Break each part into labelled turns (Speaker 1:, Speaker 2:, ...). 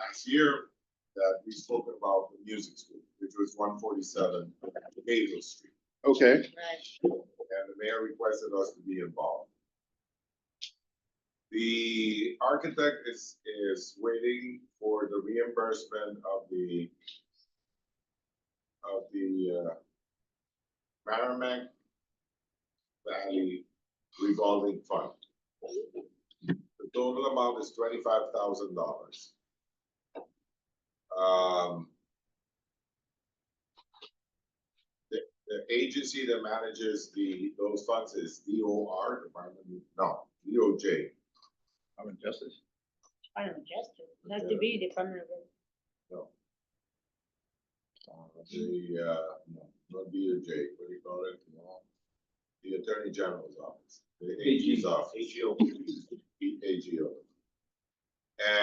Speaker 1: last year that we spoke about the music school, which was one forty-seven Hazel Street.
Speaker 2: Okay,
Speaker 1: And the mayor requested us to be involved. The architect is, is waiting for the reimbursement of the of the, uh, Merrimack Valley revolving fund. The total amount is twenty-five thousand dollars. Um. The, the agency that manages the, those funds is D O R, Department, no, D O J.
Speaker 2: I'm in justice.
Speaker 3: I don't know, just, it has to be Department of,
Speaker 1: The, uh, no, not D O J, what do you call it? No. The Attorney General's Office, the AG's office. The AGO.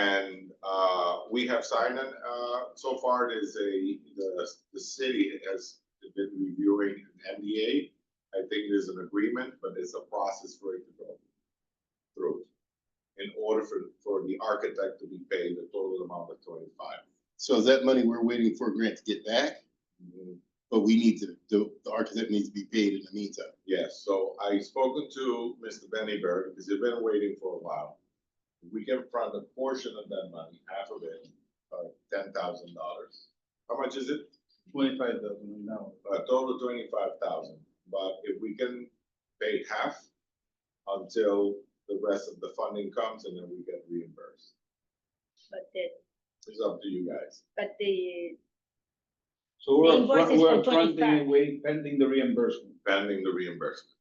Speaker 1: And, uh, we have signed, an, uh, so far there's a, the, the city has been reviewing an NDA. I think there's an agreement, but it's a process for it to go through. In order for, for the architect to be paid the total amount of twenty-five.
Speaker 2: So is that money we're waiting for Grant to get back? But we need to, the, the architect needs to be paid in the meantime.
Speaker 1: Yes, so I spoken to Mr. Benny Berg, because he's been waiting for a while. We can front a portion of that money, half of it, uh, ten thousand dollars. How much is it?
Speaker 4: Twenty-five thousand, no.
Speaker 1: A total twenty-five thousand, but if we can pay half until the rest of the funding comes and then we get reimbursed.
Speaker 3: but the,
Speaker 1: It's up to you guys.
Speaker 3: but the,
Speaker 4: So we're,
Speaker 3: Invoices
Speaker 4: fr-
Speaker 3: for
Speaker 4: we're fronting
Speaker 3: 25.
Speaker 4: and waiting, pending the reimbursement,
Speaker 1: Pending the reimbursement.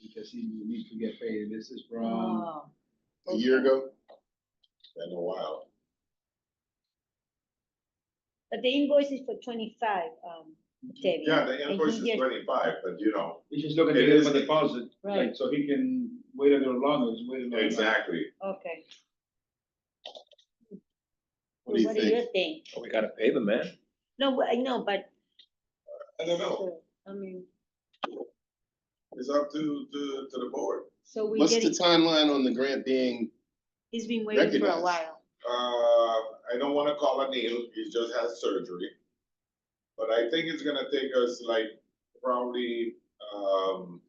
Speaker 4: because you need to get paid, this is from,
Speaker 3: oh,
Speaker 2: A year ago,
Speaker 1: Been a while.
Speaker 3: but the invoice is for twenty-five, um, Debbie.
Speaker 1: Yeah, the
Speaker 3: And
Speaker 1: invoice
Speaker 3: he
Speaker 1: is
Speaker 3: gets-
Speaker 1: twenty-five, but you know,
Speaker 4: he's just looking
Speaker 1: It
Speaker 4: to get
Speaker 1: is-
Speaker 4: him a deposit,
Speaker 3: Right,
Speaker 4: like, so he can wait a little longer, he's waiting. a little longer.
Speaker 1: exactly.
Speaker 3: okay.
Speaker 2: What do you
Speaker 3: What do you think?
Speaker 5: Oh, We gotta pay the man.
Speaker 3: No, I know, but,
Speaker 1: I don't know.
Speaker 3: so, I mean,
Speaker 1: It's up to, to, to the board.
Speaker 3: so we
Speaker 2: what's the
Speaker 3: getting,
Speaker 2: timeline on the grant being,
Speaker 3: he's been waiting for a
Speaker 2: recognized?
Speaker 3: while,
Speaker 1: Uh, I don't wanna call Anil, he just had surgery. But I think it's gonna take us like probably, um,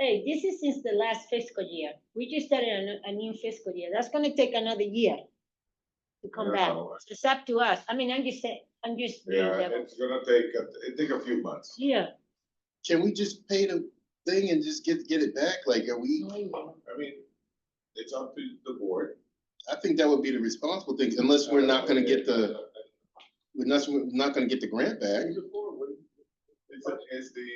Speaker 3: hey, this is since the last fiscal year, we just started a, new- a new fiscal year, that's gonna take another year to
Speaker 1: I
Speaker 3: come
Speaker 1: don't
Speaker 3: back,
Speaker 1: know.
Speaker 3: it's up to us, I mean, I'm just saying, I'm just. being
Speaker 1: Yeah,
Speaker 3: devil-
Speaker 1: it's gonna take, a- it take a few months.
Speaker 3: Yeah.
Speaker 2: can we just pay the thing and just get, get it back? Like, are we,
Speaker 1: I mean, it's up to the board.
Speaker 2: I think that would be the responsible thing, unless we're not gonna get the, unless we're not gonna get the grant back.
Speaker 1: It's, it's the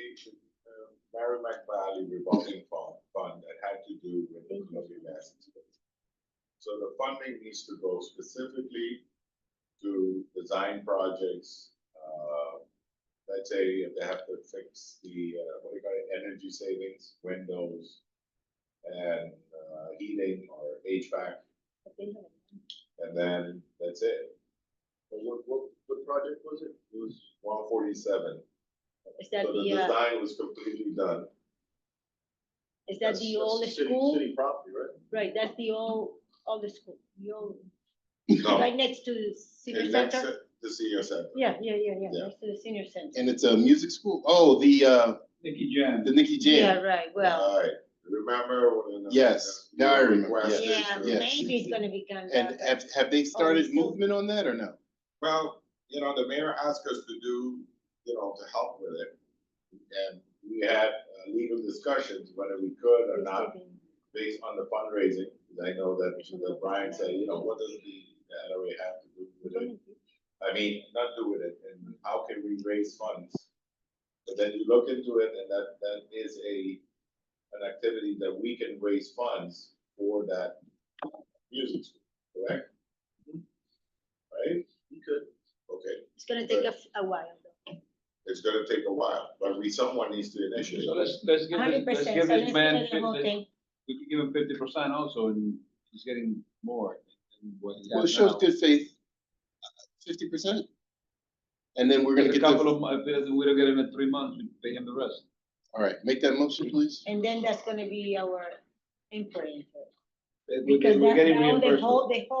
Speaker 1: um, Merrimack Valley revolving fund, fund that had to do with the Columbia Massachusetts. So the funding needs to go specifically to design projects, uh, let's say if they have to fix the, uh, what do you call it, energy savings, windows, and, uh, heating or HVAC, and then that's it. What, what, what project was it? It was one forty-seven.
Speaker 3: Is that
Speaker 1: So the
Speaker 3: the, uh,
Speaker 1: design was completely done.
Speaker 3: is that the old
Speaker 1: That's city-
Speaker 3: school?
Speaker 1: City property, right?
Speaker 3: Right, that's the old, old school, the old,
Speaker 1: No.
Speaker 3: right next to the senior
Speaker 1: Oh. and that's
Speaker 3: center?
Speaker 1: it, The senior center.
Speaker 3: Yeah, yeah, yeah, yeah,
Speaker 1: Yeah.
Speaker 3: next to the senior center.
Speaker 2: And it's a music school, oh, the, uh,
Speaker 4: Nicky Jam,
Speaker 2: the Nikki
Speaker 3: Yeah,
Speaker 2: Jam.
Speaker 3: right, well,
Speaker 1: Alright, remember when? the-
Speaker 2: Yes,
Speaker 1: you
Speaker 2: now I remember,
Speaker 1: requested
Speaker 3: yeah,
Speaker 1: to-
Speaker 2: yes.
Speaker 3: maybe it's gonna be gone.
Speaker 2: And have, have they
Speaker 3: Oh,
Speaker 2: started
Speaker 3: we still-
Speaker 2: movement on that or no?
Speaker 1: Well, you know, the mayor asked us to do, you know, to help with it. And we had uh, legal discussions whether we could or not based on the fundraising, 'cause I know that, that Brian said, you know, what does the, that we have to do with it? I mean, not do with it, and how can we raise funds? But then you look into it, and that, that is a, an activity that we can raise funds for that music school, correct? Right? Mm-hmm. You could. Okay,
Speaker 3: It's gonna take a, f- a while.
Speaker 1: it's gonna take a while, but we, someone needs to initiate.
Speaker 4: so let's, let's give
Speaker 3: Hundred
Speaker 4: this, let's
Speaker 3: percent,
Speaker 4: give
Speaker 3: so let's
Speaker 4: this
Speaker 3: get
Speaker 4: man,
Speaker 3: it the whole
Speaker 4: fifty-
Speaker 3: thing.
Speaker 4: we can give him fifty percent also, and he's getting more. than what he got
Speaker 2: Well, it shows
Speaker 4: now.
Speaker 2: good faith, uh, fifty percent. And then we're gonna
Speaker 4: There's a
Speaker 2: get
Speaker 4: couple
Speaker 2: the,
Speaker 4: of, mo- if he doesn't- we don't get him in three months, we pay him the rest.
Speaker 2: all right, make that motion, please.
Speaker 3: And then that's gonna be our input. into it.
Speaker 4: We're
Speaker 3: Because
Speaker 4: getting- we're
Speaker 3: that
Speaker 4: getting
Speaker 3: now the
Speaker 4: reimbursed.
Speaker 3: whole, the whole